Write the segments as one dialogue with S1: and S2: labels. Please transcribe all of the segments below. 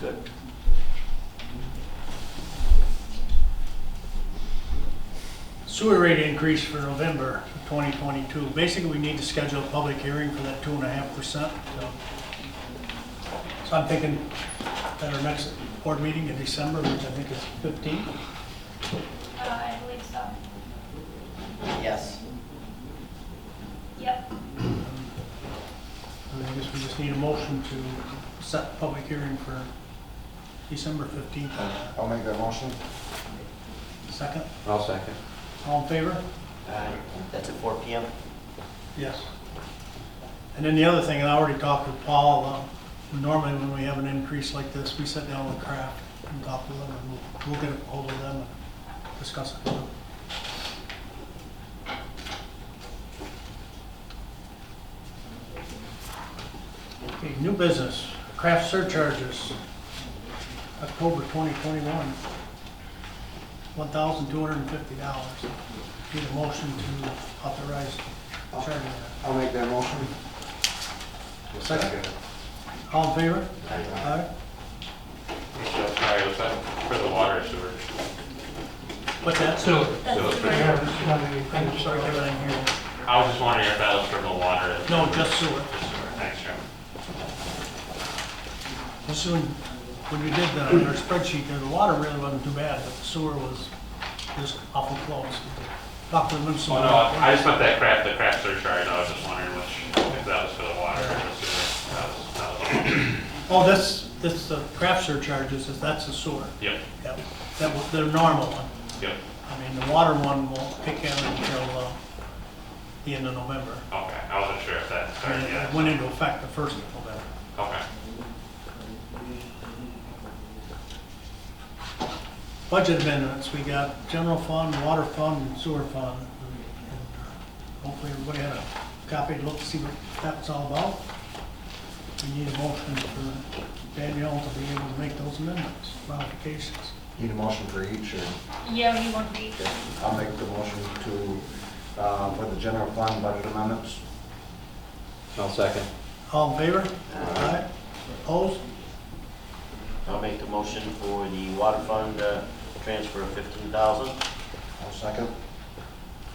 S1: Good.
S2: Sewer rate increase for November 2022. Basically, we need to schedule a public hearing for that two and a half percent. So so I'm thinking at our next board meeting in December, which I think is 15.
S3: Uh, I believe so.
S4: Yes.
S3: Yep.
S2: And I guess we just need a motion to set public hearing for December 15th.
S5: I'll make that motion.
S2: Second,
S1: I'll second.
S2: all in favor?
S4: That's at four PM.
S2: Yes. And then the other thing, and I already talked with Paul, um, normally when we have an increase like this, we sit down with Kraft and talk to them, and we'll, we'll get a hold of them and discuss it. Okay, new business, Kraft surcharges, October 2021, $1,250. Need a motion to authorize charging that.
S5: I'll make that motion.
S2: Second. All in favor? Aye.
S6: So, sorry, was that for the water sewer?
S2: What's that? Still.
S3: That's
S6: So it's
S3: the
S6: for-
S3: right-
S2: I'm sorry, everything here.
S6: I was just wondering if that was for the water.
S2: No, just sewer.
S6: Just sewer, Thanks, Jim.
S2: This is when, when we did the, our spreadsheet, there, the water really wasn't too bad, but the sewer was just awful close. Talked to the municipal.
S6: Oh, no, I I just meant that crap, the crap surcharge, I was just wondering which, if that was for the water or the sewer. That was, that was,
S2: Oh, this, this, the craft surcharges, is that's the sewer.
S6: yep,
S2: Yep. That was their normal one.
S6: yep,
S2: I mean, the water one won't pick in until, uh, the end of November.
S6: okay, I wasn't sure if that
S2: I
S6: started
S2: mean,
S6: yet.
S2: It went into effect the first of November.
S6: Okay,
S2: budget amendments, we got general fund, water fund, and sewer fund. And Hopefully everybody had a copy to look, see what that's all about. We need a motion for Danielle to be able to make those amendments, modifications.
S5: Need a motion for each, or?
S3: Yeah, we want to be.
S5: I'll make the motion to, uh, for the general fund budget amendments.
S1: I'll second.
S2: All in favor? Aye. Opposed?
S4: I'll make the motion for the water fund, uh, transfer of fifteen thousand.
S5: I'll second.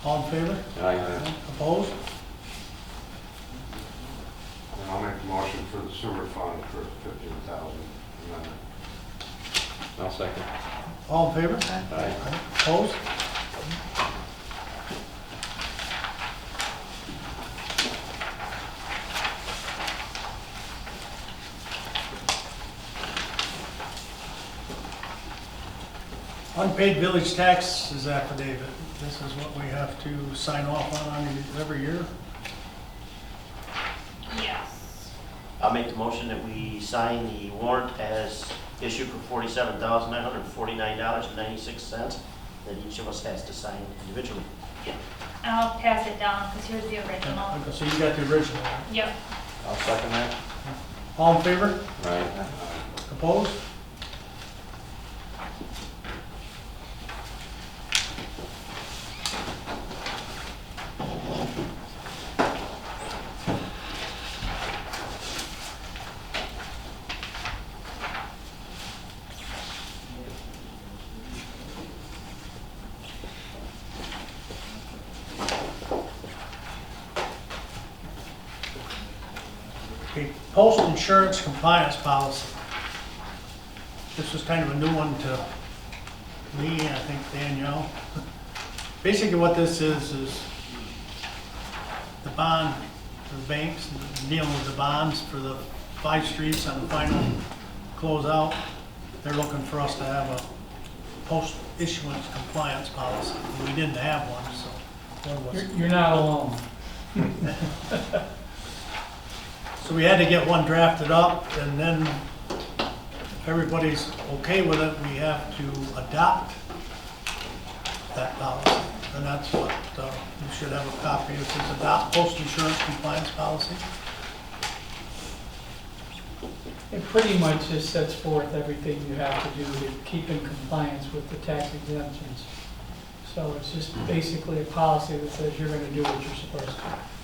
S2: All in favor?
S1: Aye.
S2: Opposed?
S7: And I'll make a motion for the sewer fund for fifteen thousand amendment.
S1: I'll second.
S2: All in favor?
S1: Aye.
S2: Opposed? Unpaid village tax is affidavit. This is what we have to sign off on every year.
S3: Yes.
S4: I'll make the motion that we sign the warrant as issued for forty-seven thousand nine hundred forty-nine dollars and ninety-six cents that each of us has to sign individually.
S3: I'll pass it down because here's the original.
S2: Okay, So you got the original.
S3: Yep.
S5: I'll second that.
S2: All in favor?
S1: Aye.
S2: Opposed? Okay, postal insurance compliance policy. This was kind of a new one to me, and I think Danielle. Basically what this is, is the bond, the banks dealing with the bonds for the five streets on the final closeout. They're looking for us to have a post-issuance compliance policy. We didn't have one, so one was.
S8: You're you're not alone.
S2: So we had to get one drafted up, and then if everybody's okay with it, we have to adopt that policy. And that's what, uh, you should have a copy, it says adopt post-insurance compliance policy.
S8: It pretty much just sets forth everything you have to do to keep in compliance with the tax exemptions. So it's just basically a policy that says you're gonna do what you're supposed to.